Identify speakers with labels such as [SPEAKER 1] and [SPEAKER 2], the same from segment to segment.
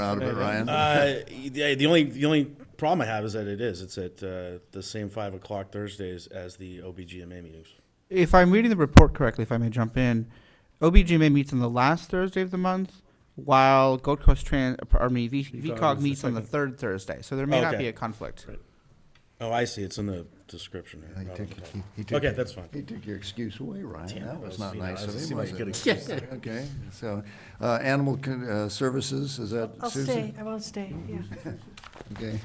[SPEAKER 1] out of it, Ryan.
[SPEAKER 2] Uh, the the only, the only problem I have is that it is, it's at, uh, the same five o'clock Thursdays as the OBGMA meetings.
[SPEAKER 3] If I'm reading the report correctly, if I may jump in, OBGMA meets on the last Thursday of the month, while Gold Coast Trans, pardon me, V- VCOG meets on the third Thursday, so there may not
[SPEAKER 2] Okay.
[SPEAKER 3] be a conflict.
[SPEAKER 2] Oh, I see, it's in the description.
[SPEAKER 1] He
[SPEAKER 2] here.
[SPEAKER 1] took- he- he took-
[SPEAKER 2] Okay, that's fine.
[SPEAKER 1] He took your excuse away, Ryan. That was not
[SPEAKER 2] you know,
[SPEAKER 1] nice
[SPEAKER 2] that
[SPEAKER 1] of
[SPEAKER 2] doesn't
[SPEAKER 1] him, was
[SPEAKER 2] seem like a
[SPEAKER 1] it?
[SPEAKER 2] good excuse.
[SPEAKER 1] Okay, so, uh, Animal Con- uh, Services, is that
[SPEAKER 4] I'll stay,
[SPEAKER 1] Susan?
[SPEAKER 4] I won't stay, yeah.
[SPEAKER 1] Okay.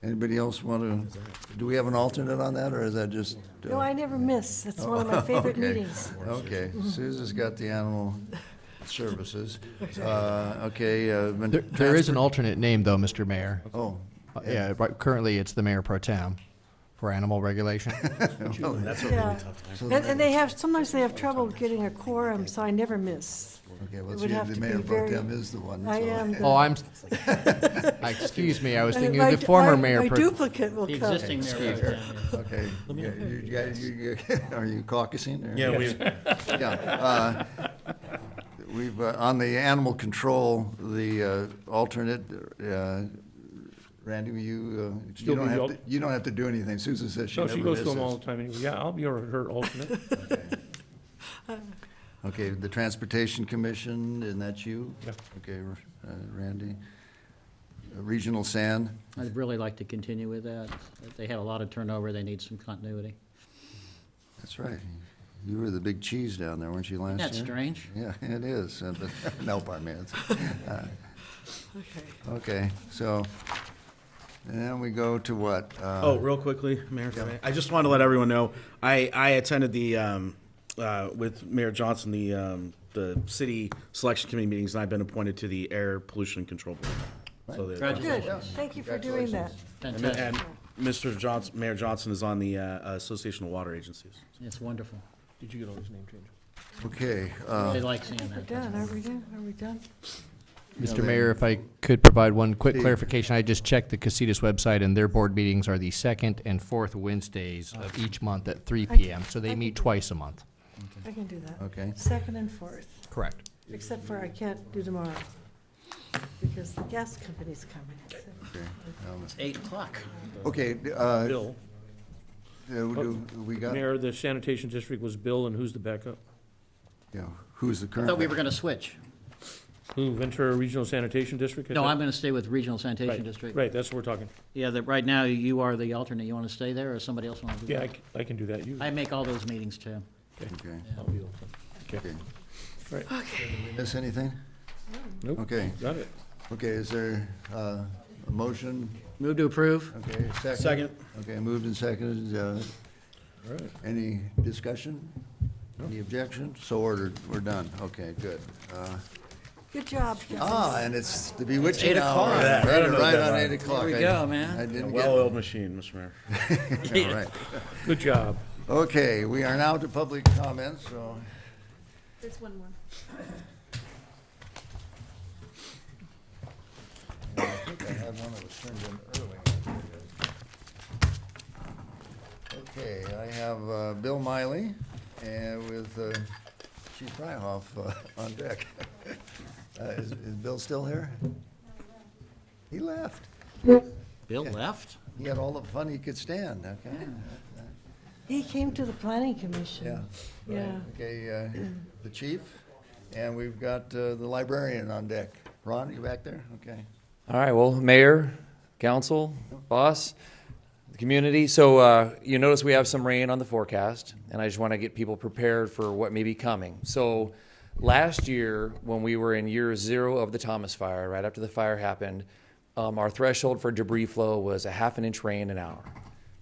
[SPEAKER 1] Anybody else want to, do we have an alternate on that, or is that just? uh,
[SPEAKER 4] No, I never miss, it's one of my favorite
[SPEAKER 1] Okay.
[SPEAKER 4] meetings.
[SPEAKER 1] Okay, Susan's got the Animal Services. Uh, Okay. uh, been
[SPEAKER 5] There, there is an
[SPEAKER 1] transferred-
[SPEAKER 5] alternate name, though, Mr. Mayor.
[SPEAKER 1] Oh,
[SPEAKER 5] Uh, Yeah, right, currently it's the mayor pro tem for animal regulation.
[SPEAKER 2] That's a
[SPEAKER 4] Yeah.
[SPEAKER 2] really tough time.
[SPEAKER 4] And, and they have, sometimes they have trouble getting a quorum, so I never miss.
[SPEAKER 1] okay, well,
[SPEAKER 4] would
[SPEAKER 1] see,
[SPEAKER 4] have
[SPEAKER 1] the
[SPEAKER 4] to be
[SPEAKER 1] mayor pro
[SPEAKER 4] very-
[SPEAKER 1] tem is the one.
[SPEAKER 4] I
[SPEAKER 1] so-
[SPEAKER 4] am. the-
[SPEAKER 5] Oh, I'm, s- excuse me, I was
[SPEAKER 4] and
[SPEAKER 5] thinking
[SPEAKER 4] my
[SPEAKER 5] of the
[SPEAKER 4] du-
[SPEAKER 5] former
[SPEAKER 4] my-
[SPEAKER 5] mayor
[SPEAKER 4] My
[SPEAKER 5] pro
[SPEAKER 4] duplicate will come.
[SPEAKER 6] existing mayor pro tem.
[SPEAKER 1] Okay, yeah, you guys, you, you- are you caucusing? or-
[SPEAKER 2] Yeah, we,
[SPEAKER 1] Yeah, uh, We've, uh, on the animal control, the uh, alternate, uh, Randy, you, uh, you
[SPEAKER 7] Still
[SPEAKER 1] don't
[SPEAKER 7] be the
[SPEAKER 1] have,
[SPEAKER 7] al-
[SPEAKER 1] to- you don't have to do anything. Susan says she
[SPEAKER 7] No,
[SPEAKER 1] never
[SPEAKER 7] she goes to them all
[SPEAKER 1] misses.
[SPEAKER 7] the time anyway. Yeah, I'll be her her alternate.
[SPEAKER 1] Okay, the Transportation Commission, and that's you?
[SPEAKER 7] Yeah.
[SPEAKER 1] Okay, uh, Randy. Uh, Regional Sand,
[SPEAKER 6] I'd really like to continue with that. They have a lot of turnover, they need some continuity.
[SPEAKER 1] that's right. You were the big cheese down there, weren't you, last year?
[SPEAKER 6] That's strange.
[SPEAKER 1] Yeah, it is. Uh, but- No, pardon me. It's- uh,
[SPEAKER 4] Okay.
[SPEAKER 1] Okay, so, and then we go to what? Uh,
[SPEAKER 6] Uh-huh.
[SPEAKER 2] Oh, real quickly, Mayor, if I may. I just wanted to let everyone know, I, I attended the, um, uh, with Mayor Johnson, the, um, the city selection committee meetings, and I've been appointed to the air pollution control board. So the-
[SPEAKER 4] Good,
[SPEAKER 6] Congratulations.
[SPEAKER 4] thank you for doing that.
[SPEAKER 2] And and
[SPEAKER 6] Fantastic.
[SPEAKER 2] Mr. Johnson, Mayor Johnson is on the, uh, Association of Water Agencies.
[SPEAKER 6] It's wonderful.
[SPEAKER 7] Did you get all these name changes?
[SPEAKER 1] Okay, uh,
[SPEAKER 7] Uh,
[SPEAKER 6] They like seeing
[SPEAKER 4] We're
[SPEAKER 6] that.
[SPEAKER 4] done, are we done, are we done?
[SPEAKER 5] Mr. Mayor, if I could provide one quick clarification, I just checked the Casitas website, and their board meetings are the second and fourth Wednesdays of each month at three
[SPEAKER 4] I can-
[SPEAKER 5] PM, so
[SPEAKER 4] I
[SPEAKER 5] they
[SPEAKER 4] can
[SPEAKER 5] meet
[SPEAKER 4] do
[SPEAKER 5] twice a month.
[SPEAKER 4] I can do that.
[SPEAKER 1] Okay.
[SPEAKER 4] Second and fourth,
[SPEAKER 5] Correct.
[SPEAKER 4] except for I can't do tomorrow, because the gas company's coming. so.
[SPEAKER 6] It's eight o'clock.
[SPEAKER 1] okay, uh, uh,
[SPEAKER 7] Bill,
[SPEAKER 1] do- we got,
[SPEAKER 7] Mayor, the sanitation district was Bill, and who's the backup?
[SPEAKER 1] yeah, who's the
[SPEAKER 6] I
[SPEAKER 1] current?
[SPEAKER 6] thought we were gonna switch.
[SPEAKER 7] Who, Ventura Regional Sanitation District? I
[SPEAKER 6] No,
[SPEAKER 7] thought-
[SPEAKER 6] I'm gonna stay with Regional Sanitation
[SPEAKER 7] Right,
[SPEAKER 6] District.
[SPEAKER 7] Right, that's what we're talking.
[SPEAKER 6] Yeah, that, right now, you are the alternate. You wanna stay there, or somebody else wanna do that?
[SPEAKER 7] Yeah, I c- I can do that. You,
[SPEAKER 6] I make all those meetings too.
[SPEAKER 1] Okay,
[SPEAKER 7] I'll be alternate.
[SPEAKER 1] okay.
[SPEAKER 7] Right.
[SPEAKER 1] Miss anything?
[SPEAKER 7] Nope.
[SPEAKER 1] Okay,
[SPEAKER 7] Got it.
[SPEAKER 1] okay, is there uh, a motion?
[SPEAKER 6] Move to approve?
[SPEAKER 1] Okay, second?
[SPEAKER 2] Second.
[SPEAKER 1] Okay, moved and seconded. uh,
[SPEAKER 7] All right.
[SPEAKER 1] Any discussion? Any objection? So ordered, we're done. Okay, good. Uh,
[SPEAKER 4] Good job, Jesse.
[SPEAKER 1] Ah, and it's the bewitching
[SPEAKER 6] eight
[SPEAKER 1] hour.
[SPEAKER 6] o'clock.
[SPEAKER 2] Yeah, I
[SPEAKER 1] Right
[SPEAKER 2] don't know
[SPEAKER 1] right
[SPEAKER 2] that
[SPEAKER 1] on
[SPEAKER 2] one.
[SPEAKER 1] 8 o'clock.
[SPEAKER 6] we
[SPEAKER 1] I-
[SPEAKER 6] go, man.
[SPEAKER 1] I didn't get
[SPEAKER 2] Well-oiled machine, Mr. Mayor.
[SPEAKER 1] it. All right.
[SPEAKER 7] Good job.
[SPEAKER 1] Okay, we are now to public comments, so.
[SPEAKER 4] There's one more.
[SPEAKER 1] I think I had one that was turned in early. Okay, I have uh, Bill Miley and with uh, Chief Fryhoff uh, on deck. Uh, Is is Bill still here? He left.
[SPEAKER 6] Bill left?
[SPEAKER 1] He had all the fun he could stand, okay?
[SPEAKER 4] He came to the planning commission.
[SPEAKER 1] Yeah.
[SPEAKER 4] Yeah.
[SPEAKER 1] Okay, uh, the chief, and we've got uh, the librarian on deck. Ron, you back there? Okay.
[SPEAKER 8] All right, well, mayor, council, boss, the community. So uh, you notice we have some rain on the forecast, and I just want to get people prepared for what may be coming. So last year, when we were in year zero of the Thomas Fire, right after the fire happened, um, our threshold for debris flow was a half an inch rain an hour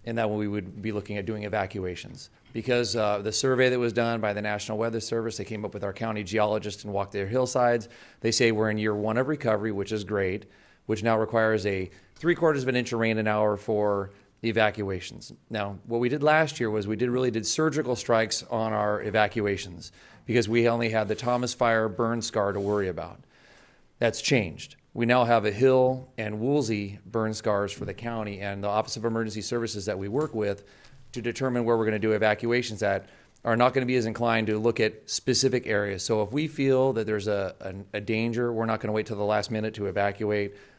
[SPEAKER 8] and that we would be looking at doing evacuations. Because uh, the survey that was done by the National Weather Service, they came up with our county geologists and walked their hillsides. They say we're in year one of recovery, which is great, which now requires a three quarters of an inch of rain an hour for evacuations. Now, what we did last year was we did really did surgical strikes on our evacuations because we only had the Thomas Fire burn scar to worry about. That's changed. We now have a Hill and Woolsey burn scars for the county, and the Office of Emergency Services that we work with to determine where we're going to do evacuations at are not going to be as inclined to look at specific areas. So if we feel that there's a, a, a danger, we're not going to wait till the last minute to evacuate.